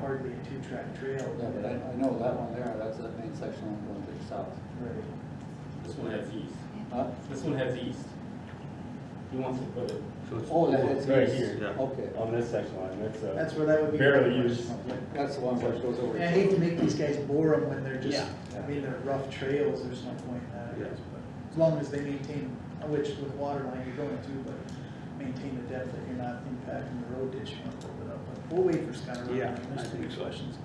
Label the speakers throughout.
Speaker 1: hard to be a two-track trail.
Speaker 2: Yeah, but I, I know that one there, that's the main section I'm going to the south. Uh,
Speaker 1: Right.
Speaker 3: This one has east.
Speaker 2: Huh?
Speaker 3: This one has east. He wants to put it
Speaker 4: So it's,
Speaker 2: Oh, that is.
Speaker 3: Right here, yeah.
Speaker 2: Okay,
Speaker 3: on this uh, section line, that's a.
Speaker 1: That's where that would be.
Speaker 3: Barely used.
Speaker 2: that's the one which goes over.
Speaker 1: And I hate to make these guys bore them when they're just,
Speaker 2: Yeah.
Speaker 1: I mean, they're rough trails, there's no point in that, I guess, but as long as they maintain, which with water line you're going to, but maintain the depth that you're not impacting the road ditch, you want to open up, but we'll wait for Scott. around.
Speaker 4: Yeah, I
Speaker 1: There's
Speaker 4: think so.
Speaker 1: questions.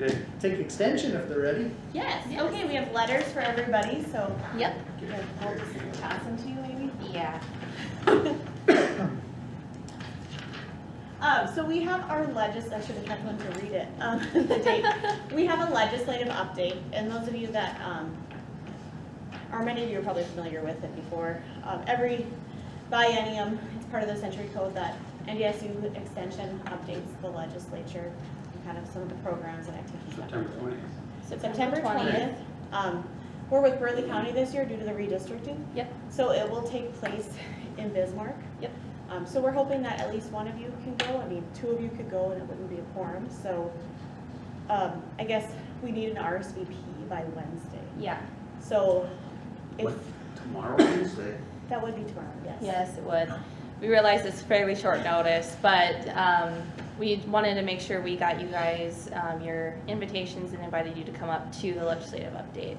Speaker 4: okay,
Speaker 1: Take extension if they're ready.
Speaker 5: Yes,
Speaker 6: Okay, we have letters for everybody, so
Speaker 5: Yep.
Speaker 6: we'll just pass them to you maybe.
Speaker 5: Yeah.
Speaker 6: Um, so we have our legis, I should have had one to read it, um, the date. We have a legislative update, and those of you that, um, or many of you are probably familiar with it before. Um, every biennium, it's part of the century code that NDSU extension updates the legislature and kind of some of the programs and activities. that
Speaker 4: September twentieth.
Speaker 6: September twentieth. Um, we're with Burley County this year due to the redistricting.
Speaker 5: Yep.
Speaker 6: So it will take place in Bismarck.
Speaker 5: Yep.
Speaker 6: Um, so we're hoping that at least one of you can go, I mean, two of you could go and it wouldn't be a quorum, so, um, I guess we need an RSVP by Wednesday.
Speaker 5: Yeah,
Speaker 6: So, if,
Speaker 4: What, tomorrow Wednesday?
Speaker 6: that would be tomorrow, yes.
Speaker 5: yes, it would. We realize it's fairly short notice, but um, we wanted to make sure we got you guys um, your invitations and invited you to come up to the legislative update.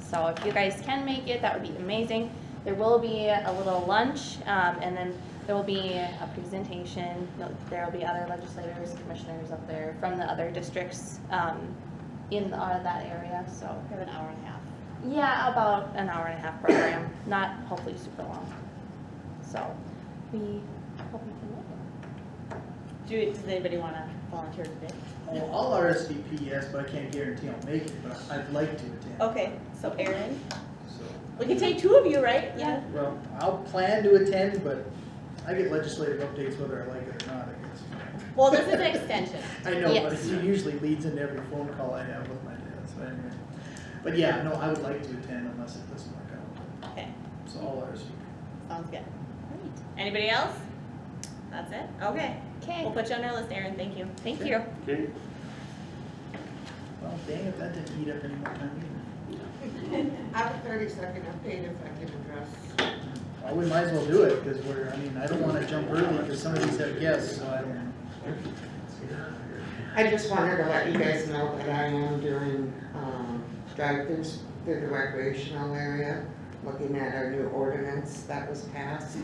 Speaker 5: So if you guys can make it, that would be amazing. There will be a little lunch, um, and then there will be a presentation. There will be other legislators, commissioners up there from the other districts um, in uh, that area, so.
Speaker 6: We have an hour and a half.
Speaker 5: Yeah, about an hour and a half program, not hopefully super long. So, we hope we can make
Speaker 6: Do, does anybody wanna volunteer today?
Speaker 1: Well, I'll RSVP, yes, but I can't guarantee I'll make it, but I'd like to attend.
Speaker 6: Okay, so Erin,
Speaker 1: So,
Speaker 6: we can take two of you, right?
Speaker 5: Yeah.
Speaker 1: well, I'll plan to attend, but I get legislative updates whether I like it or not, I guess.
Speaker 6: Well, this is an extension.
Speaker 1: I know, but
Speaker 5: Yes.
Speaker 1: it usually leads into every phone call I have with my dad, so anyway. But yeah, no, I would like to attend unless it doesn't work out,
Speaker 6: Okay,
Speaker 1: so all ours.
Speaker 6: sounds good. Anybody else? That's it? Okay.
Speaker 5: it.
Speaker 6: We'll
Speaker 5: Okay,
Speaker 6: put you on our list, Erin, thank you.
Speaker 5: thank you.
Speaker 4: Okay.
Speaker 1: Well, dang it, that didn't eat up any more time either.
Speaker 7: I have a thirty-second update if I can address.
Speaker 1: Well, we might as well do it, because we're, I mean, I don't wanna jump early, because some of these have guests, so I don't.
Speaker 7: I just wanted to let you guys know that I am doing, um, drive-throughs through the recreational area, looking at our new ordinance that was passed.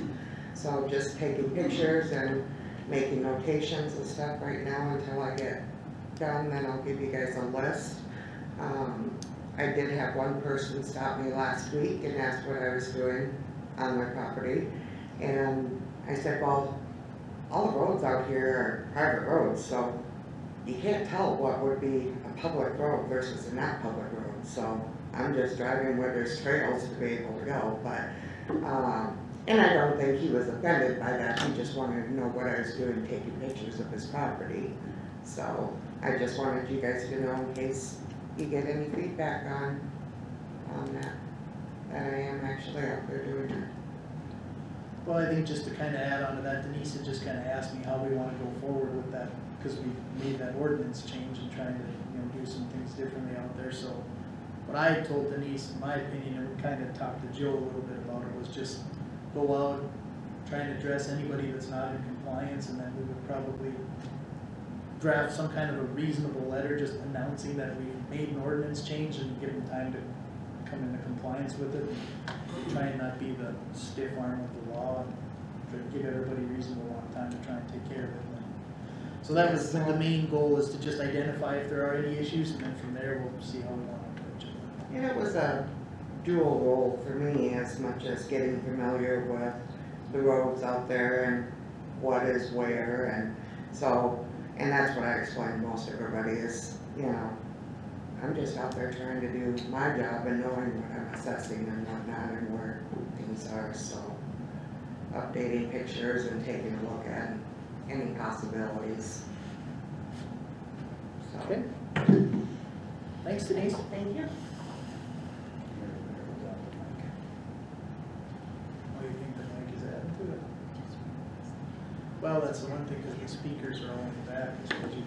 Speaker 7: So just taking pictures and making notations and stuff right now until I get done, then I'll give you guys a list. Um, I did have one person stop me last week and asked what I was doing on my property. And I said, well, all the roads out here are private roads, so you can't tell what would be a public road versus a not public road, so I'm just driving where there's trails to be able to go, but, um, and I don't think he was offended by that, he just wanted to know what I was doing, taking pictures of his property. So I just wanted you guys to know in case you get any feedback on, on that, that I am actually out there doing it.
Speaker 1: Well, I think just to kinda add on to that, Denise had just kinda asked me how we wanna go forward with that, because we made that ordinance change and trying to, you know, do some things differently out there, so. What I told Denise, in my opinion, and kinda talked to Joe a little bit about it, was just go out, try and address anybody that's not in compliance, and then we would probably draft some kind of a reasonable letter just announcing that we made an ordinance change and give them time to come into compliance with it. Try and not be the stiff arm of the law and try to give everybody a reasonable amount of time to try and take care of it. So that was the main goal is to just identify if there are any issues and then from there we'll see how we want to approach it.
Speaker 7: And it was a dual role for me as much as getting familiar with the roads out there and what is where and so, and that's what I explained to most everybody is, you know, I'm just out there trying to do my job and knowing what I'm assessing and whatnot and where things are, so updating pictures and taking a look at any possibilities. So.
Speaker 1: Okay. Thanks Denise.
Speaker 7: Thank you.
Speaker 1: What do you think the mic is adding to it? Well, that's the one thing, because the speakers are all in the back, it's what you-